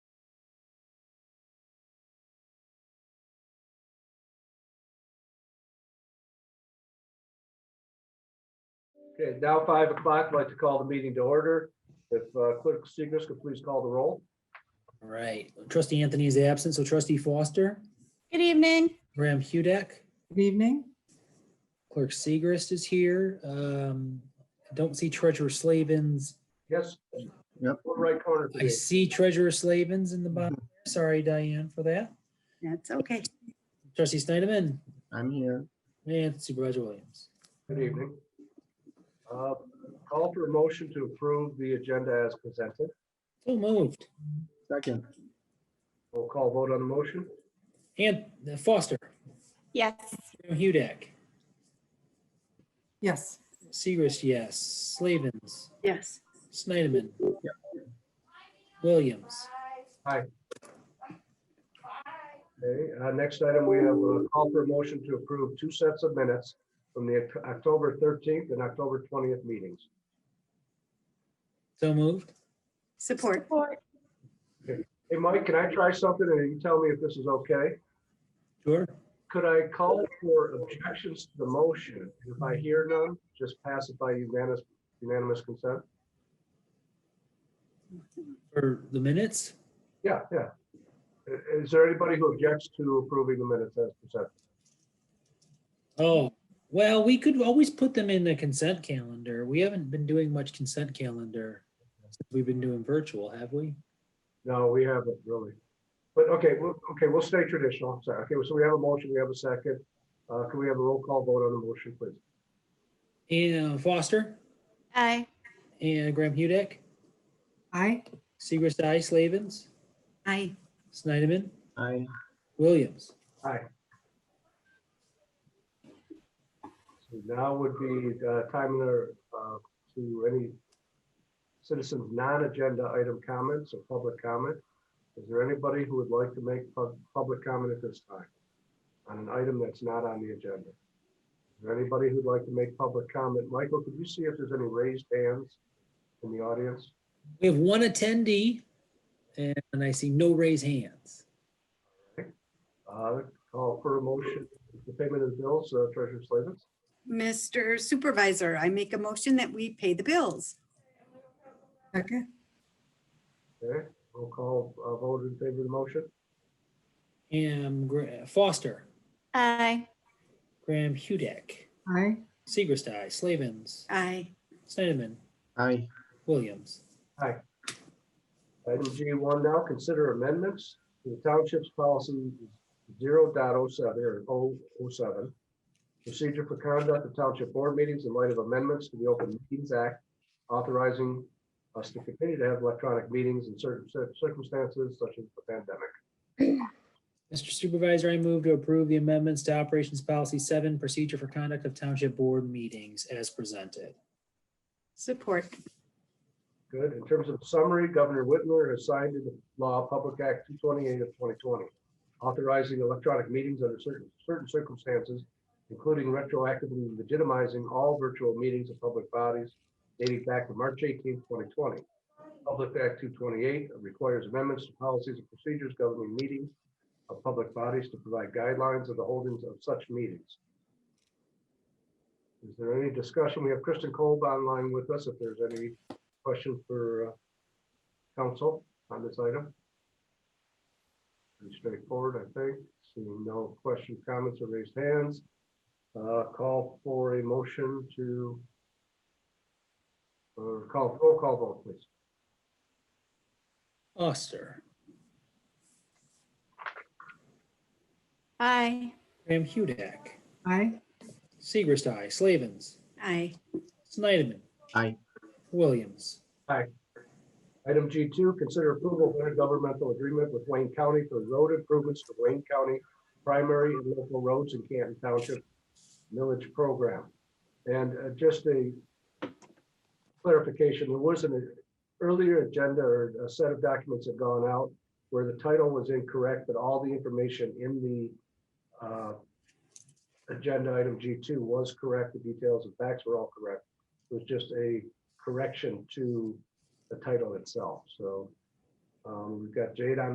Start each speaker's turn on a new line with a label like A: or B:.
A: Okay, now five o'clock, I'd like to call the meeting to order. If uh, Clerk Segris could please call the roll.
B: All right, trustee Anthony is absent, so trustee Foster,
C: Good evening.
B: Graham Hudek,
D: Good evening.
B: clerk Segrist is here. Um, I Don't see treasurer Slavens.
A: Yes?
E: Yep.
A: Lower Right corner.
B: I
A: please.
B: see treasurer Slavens in the bottom. Sorry, Diane, for that.
C: That's okay.
B: Trustee Snyderman
E: I'm here.
B: and Supervisor Williams.
A: Good evening. Uh, Call for a motion to approve the agenda as presented.
B: So moved.
E: Second,
A: We'll call vote on the motion.
B: And uh, Foster,
C: Yes.
B: Graham Hudek,
D: Yes,
B: Segrist, yes. Slavens,
C: Yes.
B: Snyderman. Williams.
A: Okay, uh, next item, we have a call for a motion to approve two sets of minutes from the Oct- October thirteenth and October twentieth meetings.
B: So moved.
C: Support.
A: Hey, Mike, can I try something and you tell me if this is okay?
B: Sure.
A: Could I call for objections to the motion? If I hear none, just pass it by unanimous, unanimous consent?
B: For the minutes.
A: Yeah, yeah. I- Is there anybody who objects to approving the minutes as presented?
B: Oh, well, we could always put them in the consent calendar. We haven't been doing much consent calendar. since We've been doing virtual, have we?
A: No, we haven't really. But okay, we'll, okay, we'll stay traditional. I'm Sorry. Okay, so we have a motion, we have a second. Uh, can we have a roll call vote on the motion, please?
B: And Foster
C: Aye.
B: and Graham Hudek,
D: I,
B: Seagrist, I, Slavens,
C: Aye.
B: Snyderman,
E: I,
B: Williams.
A: Aye. So now would be uh, time to, uh, to any citizens' non-agenda item comments or public comment. Is there anybody who would like to make pub- public comment at this time on an item that's not on the agenda? Is there anybody who'd like to make public comment? Michael, could you see if there's any raised hands in the audience?
B: We have one attendee and I see no raised hands.
A: Uh, Call for a motion, the payment of the bills, uh, Treasurer Slavens.
C: Mr. Supervisor, I make a motion that we pay the bills.
D: second,
A: Okay, roll call, uh, vote in favor of the motion.
B: And Gra- Foster,
C: Aye.
B: Graham Hudek,
D: I,
B: Seagrist, I, Slavens,
C: Aye.
B: Snyderman,
E: I,
B: Williams.
A: Item G one now, consider amendments to the township's policy 0.07 or 007, Procedure for conduct of township board meetings in light of amendments to the Open Meetings Act authorizing us to continue to have electronic meetings in certain cir- circumstances such as the pandemic.
B: Mr. Supervisor, I move to approve the amendments to Operations Policy 7, Procedure for Conduct of Township Board Meetings as presented.
C: Support.
A: Good. In terms of summary, Governor Whitmer has signed into law Public Act two twenty-eight of twenty twenty, authorizing electronic meetings under certain, certain circumstances, including retroactively legitimizing all virtual meetings of public bodies dating back to March 18, twenty twenty. Public Act two twenty-eight requires amendments to policies and procedures governing meetings of public bodies to provide guidelines of the holdings of such meetings. Is there any discussion? We have Kristen Kolb online with us. If there's any question for uh, council on this item? Pretty straightforward, I think. Seeing no question, comments, or raised hands. uh, Call for a motion to or call, roll call vote, please.
B: Foster,
C: Aye.
B: Graham Hudek,
D: I,
B: Seagrist, I, Slavens,
C: Aye.
B: Snyderman.
E: Aye.
B: Williams.
A: Item G2, consider approval of intergovernmental agreement with Wayne County for road improvements to Wayne County primary and local roads in Canton Township Village Program. And uh, just a clarification, there was an earlier agenda or a set of documents had gone out where the title was incorrect, but all the information in the uh, agenda item G2 was correct. The details and facts were all correct. It was just a correction to the title itself. So um, we've got Jade on